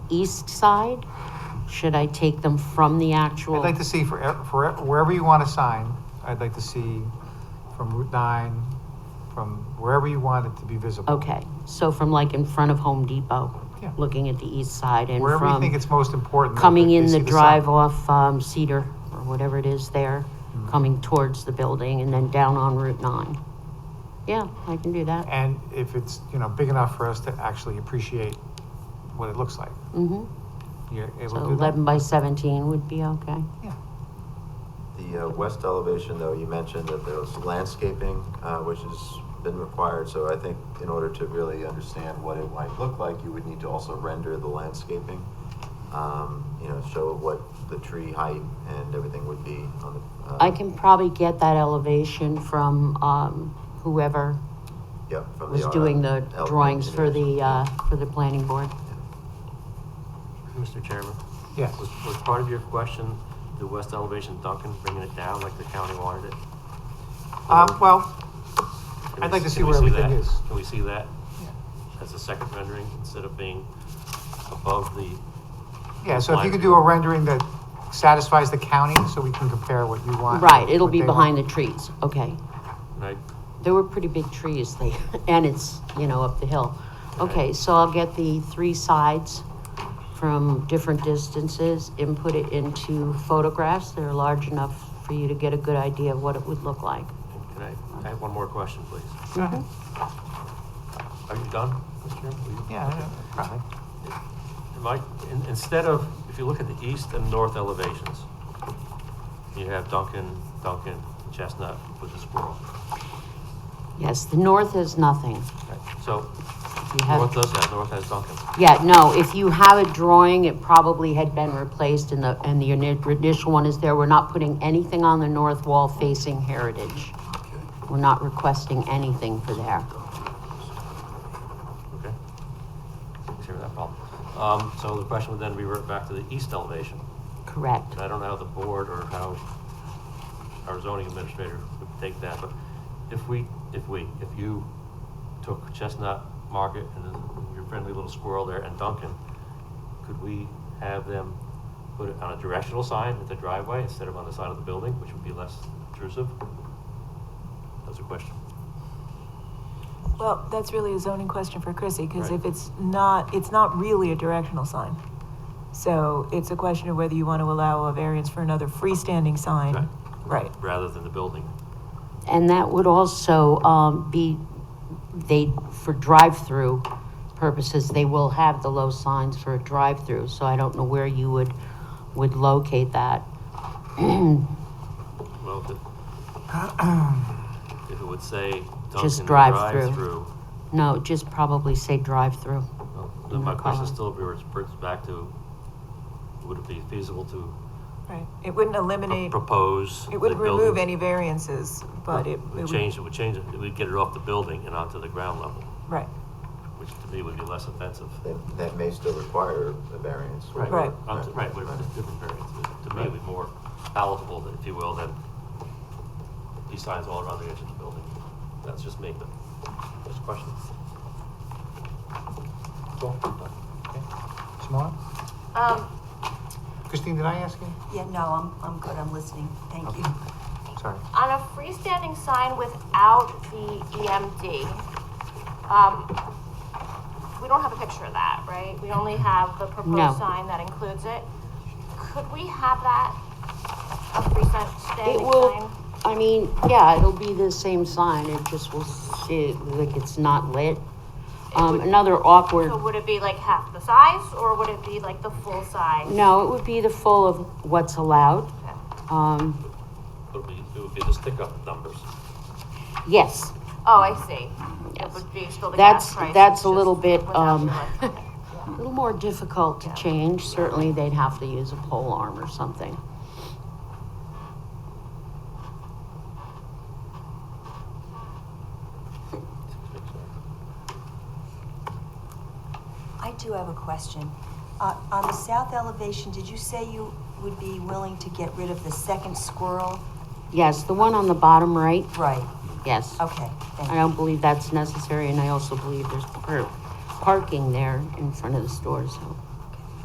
east side? Should I take them from the I'd actual? like to see for, e- for e- wherever you want to sign, I'd like to see from Route 9, from wherever you want it to be visible. Okay, so from like in front of Home Depot, Yeah. looking at the east side and Wherever you think from it's most important. that coming they in see the sign. drive off um, Cedar or whatever it is there, Mm-hmm. coming towards the building and then down on Route 9. Yeah, I can do that. And if it's, you know, big enough for us to actually appreciate what it looks like, hmm you're So able to do that? 11 by 17 would be okay. Yeah. The uh, west elevation, though, you mentioned that there was landscaping, uh, which has been required, so I think in order to really understand what it might look like, you would need to also render the landscaping. Um, you know, show what the tree height and everything would be on the. Uh, I can probably get that elevation from um, whoever yeah, from was the doing the RF elevation drawings for engineers. the, uh, for the planning board. Mr. Chairman, Yes. was, was part of your question the west elevation Duncan bringing it down like the county wanted it? Um, well, Can I'd we like to see can we where everything that? is. Can we see that Yeah. as a second rendering instead of being above the, yeah, so if you Line could view. do a rendering that satisfies the county, so we can compare what you want. Right, it'll what be they behind the want. trees, okay. and I, There were pretty big trees, they, and it's, you know, up the hill. Okay, so I'll get the three sides from different distances and put it into photographs that are large enough for you to get a good idea of what it would look like. can I, I have one more question, please. Go ahead. Are you done, Mr. Chairman? Will you- Yeah, yeah, probably. Am I- in instead of, if you look at the east and north elevations, you have Duncan, Duncan, Chestnut with the squirrel. Yes, the north is nothing. So, You have- north does that, north has Duncan. Yeah, no, if you have a drawing, it probably had been replaced and the, and the ini- initial one is there. We're not putting anything on the north wall facing Heritage. We're not requesting anything for there. Okay. Takes care of that problem. Um, so the question would then revert back to the east elevation. Correct. And I don't know how the board or how our zoning administrator would take that, but if we, if we, if you took Chestnut Market and then your friendly little squirrel there and Duncan, could we have them put it on a directional sign at the driveway instead of on the side of the building, which would be less intrusive? That's a question. Well, that's really a zoning question for Chrissy, because Right. if it's not, it's not really a directional sign. So it's a question of whether you want to allow a variance for another freestanding sign. Right. Rather than the building. And that would also, um, be, they, for drive-through purposes, they will have the low signs for a drive-through. So I don't know where you would, would locate that. Well, if it, if it would say Just Dunkin' drive-through. drive-through, No, just probably say drive-through. well, then my No question problem. still reverts back to, would it be feasible to Right. It wouldn't pro- eliminate, propose? it wouldn't the remove building- any variances, but it. it It would change, it would change, it would get it off the building and onto the ground level, Right. which to me would be less offensive. That, that may still require a variance. Right. Onto- Right, whatever, it's different variance, It- to me, it would be more palatable, if you will, than these signs all around the edge of the building. That's just me, but just a question. Cool. Okay. Simona? Um, Christine, did I ask you? yeah, no, I'm, I'm good, I'm listening, thank you. Sorry. On a freestanding sign without the EMD, um, we don't have a picture of that, right? We only have the No. proposed sign that includes it. Could we have that, a freestanding It will, sign? I mean, yeah, it'll be the same sign, it just will see, like, it's not lit. Um, another awkward, So would it be like half the size, or would it be like the full size? no, it would be the full of what's allowed. Okay. Um, It would be, it would be the stick-up numbers. yes, Oh, I see. Yes. It would be still the That's- gas price. that's it's a little just bit, without um, the electronic. a little more difficult to change, certainly they'd have to use a pole arm or something. I do have a question. Uh, on the south elevation, did you say you would be willing to get rid of the second squirrel? Yes, the one on the bottom right, Right, yes. okay, thank I you. don't believe that's necessary, and I also believe there's per- parking there in front of the store, so.